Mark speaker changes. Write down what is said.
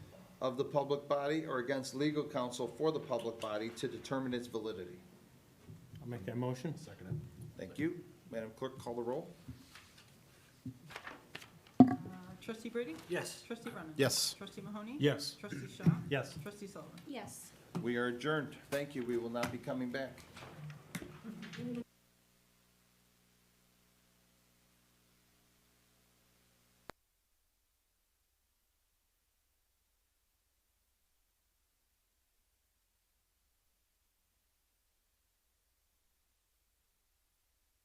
Speaker 1: of the public body or against legal counsel for the public body to determine its validity.
Speaker 2: I'll make that motion. Second
Speaker 1: Thank you. Madam Clerk, call the roll.
Speaker 3: Trustee Brady?
Speaker 2: Yes.
Speaker 3: Trustee Brennan?
Speaker 4: Yes.
Speaker 3: Trustee Mahoney?
Speaker 2: Yes.
Speaker 3: Trustee Shaw?
Speaker 2: Yes.
Speaker 3: Trustee Sullivan?
Speaker 5: yes,
Speaker 1: We are adjourned. Thank you. We will not be coming back.